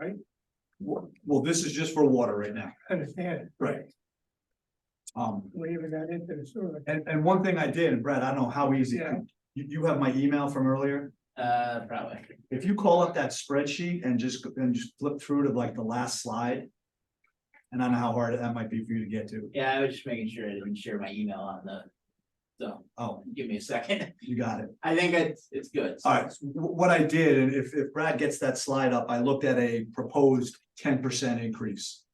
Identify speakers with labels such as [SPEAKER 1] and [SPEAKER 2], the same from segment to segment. [SPEAKER 1] right?
[SPEAKER 2] Well, well, this is just for water right now.
[SPEAKER 1] Understand,
[SPEAKER 2] Right. Um,
[SPEAKER 1] we even got into the sewer.
[SPEAKER 2] and, and one thing I did, and Brad, I don't know how easy,
[SPEAKER 1] Yeah.
[SPEAKER 2] you, you have my email from earlier?
[SPEAKER 3] Uh, probably.
[SPEAKER 2] If you call up that spreadsheet and just, go- and just flip through to like the last slide. And I don't know how hard that might be for you to get to.
[SPEAKER 3] Yeah, I was just making sure I didn't share my email on the. So,
[SPEAKER 2] Oh,
[SPEAKER 3] give me a second.
[SPEAKER 2] you got it.
[SPEAKER 3] I think it's, it's good. so-
[SPEAKER 2] All right, wh- what I did, and if, if Brad gets that slide up, I looked at a proposed ten percent increase.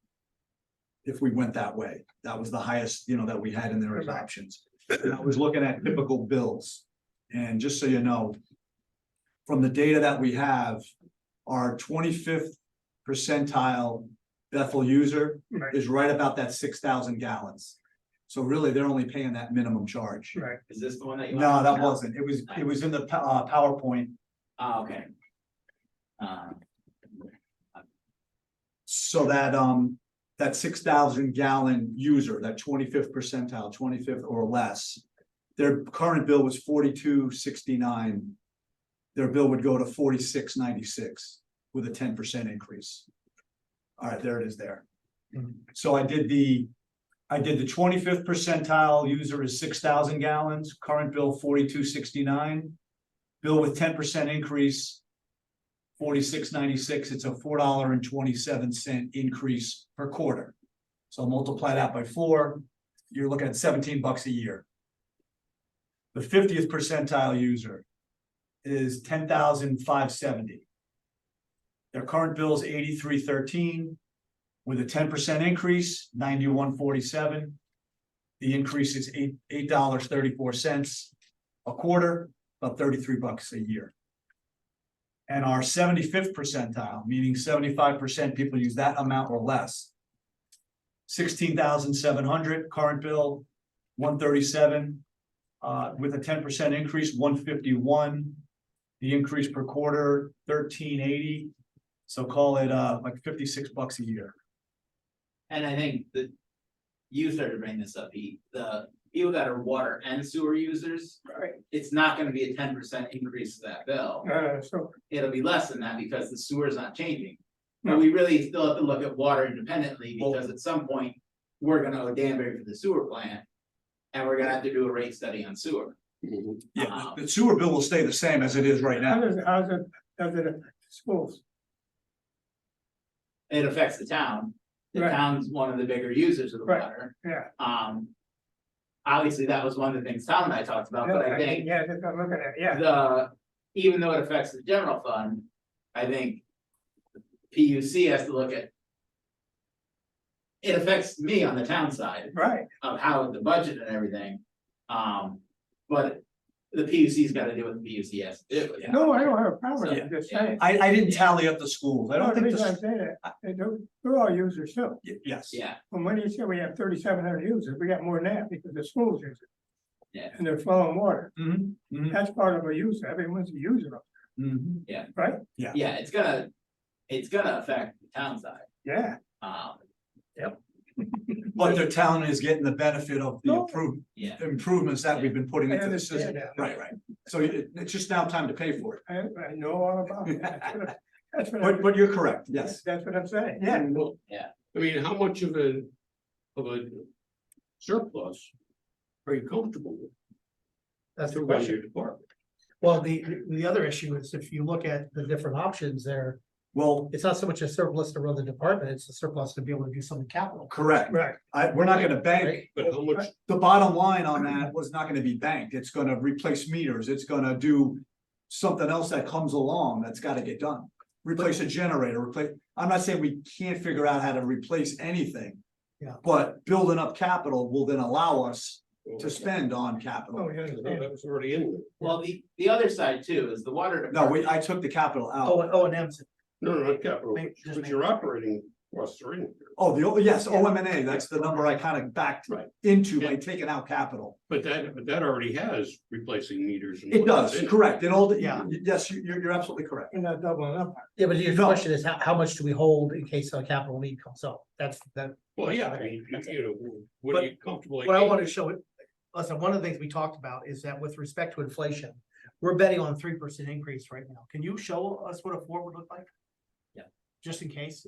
[SPEAKER 2] If we went that way, that was the highest, you know, that we had in there as options. And I was looking at typical bills. And just so you know, from the data that we have, our twenty-fifth percentile Bethel user
[SPEAKER 1] Right,
[SPEAKER 2] is right about that six thousand gallons. So really, they're only paying that minimum charge.
[SPEAKER 1] right.
[SPEAKER 3] Is this the one that you?
[SPEAKER 2] No,
[SPEAKER 3] want?
[SPEAKER 2] that wasn't. It was, it was in the pow- uh, PowerPoint.
[SPEAKER 3] Oh, okay. Um,
[SPEAKER 2] So that, um, that six thousand gallon user, that twenty-fifth percentile, twenty-fifth or less. Their current bill was forty-two sixty-nine. Their bill would go to forty-six ninety-six with a ten percent increase. All right, there it is there.
[SPEAKER 1] Mhm.
[SPEAKER 2] So I did the, I did the twenty-fifth percentile user is six thousand gallons, current bill forty-two sixty-nine. Bill with ten percent increase, forty-six ninety-six, it's a four dollar and twenty-seven cent increase per quarter. So multiply that by four, you're looking at seventeen bucks a year. The fiftieth percentile user is ten thousand five seventy. Their current bill is eighty-three thirteen, with a ten percent increase, ninety-one forty-seven. The increase is eight, eight dollars thirty-four cents a quarter, about thirty-three bucks a year. And our seventy-fifth percentile, meaning seventy-five percent people use that amount or less. Sixteen thousand seven hundred, current bill, one thirty-seven. Uh, with a ten percent increase, one fifty-one. The increase per quarter, thirteen eighty. So call it, uh, like fifty-six bucks a year.
[SPEAKER 3] and I think that. You started bringing this up, he, the people that are water and sewer users,
[SPEAKER 1] Right.
[SPEAKER 3] it's not gonna be a ten percent increase to that bill.
[SPEAKER 1] Uh, so,
[SPEAKER 3] It'll be less than that because the sewer's not changing.
[SPEAKER 1] No.
[SPEAKER 3] But we really still have to look at water independently
[SPEAKER 2] Well-
[SPEAKER 3] because at some point, we're gonna owe Danbury for the sewer plant. And we're gonna have to do a rate study on sewer.
[SPEAKER 2] Yeah, the- the sewer bill will stay the same as it is right now.
[SPEAKER 1] how does, how does, it- does it affect the schools?
[SPEAKER 3] It affects the town. The
[SPEAKER 1] Right.
[SPEAKER 3] town's one of the bigger users of the
[SPEAKER 1] Right.
[SPEAKER 3] water.
[SPEAKER 1] Yeah.
[SPEAKER 3] Um. Obviously, that was one of the things Tom and I talked about, but I think
[SPEAKER 1] Yeah, that's what I'm looking at, yeah.
[SPEAKER 3] the, even though it affects the general fund, I think. P U C has to look at. It affects me on the town side
[SPEAKER 1] Right,
[SPEAKER 3] of how the budget and everything, um, but. The P U C's gotta do what the P U C has to do.
[SPEAKER 1] no, I don't have a problem,
[SPEAKER 3] Yeah.
[SPEAKER 1] I'm just saying.
[SPEAKER 2] I, I didn't tally up the schools. I don't
[SPEAKER 1] The
[SPEAKER 2] think,
[SPEAKER 1] reason I'm
[SPEAKER 2] the-
[SPEAKER 1] saying that, they do- they're all users too.
[SPEAKER 2] y- yes.
[SPEAKER 3] Yeah,
[SPEAKER 1] And when you say we have thirty-seven hundred users, we got more than that because the schools use it.
[SPEAKER 3] Yeah.
[SPEAKER 1] And they're flowing water.
[SPEAKER 2] Mhm, mhm,
[SPEAKER 1] That's part of a user. Everyone's a user, of it,
[SPEAKER 2] mhm.
[SPEAKER 1] right?
[SPEAKER 3] yeah, it's gonna, it's gonna affect the town side,
[SPEAKER 1] Yeah.
[SPEAKER 3] um,
[SPEAKER 2] But their town is getting the benefit of the
[SPEAKER 1] No.
[SPEAKER 2] improve,
[SPEAKER 3] yeah.
[SPEAKER 2] improvements that we've been putting
[SPEAKER 1] I
[SPEAKER 2] into the system.
[SPEAKER 1] understand that.
[SPEAKER 2] Right, right. So it, it's just now time to pay for it.
[SPEAKER 1] I, I know all about it. That's what I- That's what
[SPEAKER 2] But,
[SPEAKER 1] I'm,
[SPEAKER 2] but you're correct, yes.
[SPEAKER 1] that's what I'm saying.
[SPEAKER 2] Yeah.
[SPEAKER 4] Well,
[SPEAKER 3] Yeah.
[SPEAKER 4] I mean, how much of a, of a surplus are you comfortable with?
[SPEAKER 5] That's the
[SPEAKER 4] to run
[SPEAKER 5] question.
[SPEAKER 4] your department?
[SPEAKER 5] Well, the, the other issue is if you look at the different options there,
[SPEAKER 2] Well,
[SPEAKER 5] it's not so much a surplus to run the department, it's a surplus to be able to do something capital.
[SPEAKER 2] correct.
[SPEAKER 1] Right,
[SPEAKER 2] I, we're not gonna bank,
[SPEAKER 5] Right?
[SPEAKER 4] But how much,
[SPEAKER 2] the bottom line on that was not gonna be banked. It's gonna replace meters. It's gonna do something else that comes along that's gotta get done. Replace a generator, replace, I'm not saying we can't figure out how to replace anything.
[SPEAKER 5] Yeah.
[SPEAKER 2] But building up capital will then allow us to spend on
[SPEAKER 1] oh,
[SPEAKER 2] capital.
[SPEAKER 1] yeah,
[SPEAKER 4] No,
[SPEAKER 1] yeah.
[SPEAKER 4] that was already in there.
[SPEAKER 3] Well, the, the other side too is the water department.
[SPEAKER 2] No, we, I took the capital out.
[SPEAKER 5] Oh, and- oh, and M's,
[SPEAKER 4] No, no, not capital,
[SPEAKER 5] Make- just
[SPEAKER 4] but
[SPEAKER 5] make-
[SPEAKER 4] your operating costs are in there.
[SPEAKER 2] Oh, the, O- yes,
[SPEAKER 5] Yeah.
[SPEAKER 2] O M and A, that's the number I kind of backed
[SPEAKER 4] Right.
[SPEAKER 2] into by
[SPEAKER 4] Yeah.
[SPEAKER 2] taking out capital.
[SPEAKER 4] But that, but that already has replacing meters. and
[SPEAKER 2] It
[SPEAKER 4] whatnot
[SPEAKER 2] does,
[SPEAKER 4] in
[SPEAKER 2] correct, it all,
[SPEAKER 5] Yeah.
[SPEAKER 2] yeah, yes, you- you're, you're absolutely correct.
[SPEAKER 1] You're not doubling up.
[SPEAKER 5] yeah, but your
[SPEAKER 2] No.
[SPEAKER 5] question is how, how much do we hold in case a capital need comes up? That's, that,
[SPEAKER 4] Well, yeah, I mean, you- you know, what are you comfortable?
[SPEAKER 5] what I want to show it, listen, one of the things we talked about is that with respect to inflation, we're betting on three percent increase right now. Can you show us what a four would look like?
[SPEAKER 3] Yeah.
[SPEAKER 5] just in case,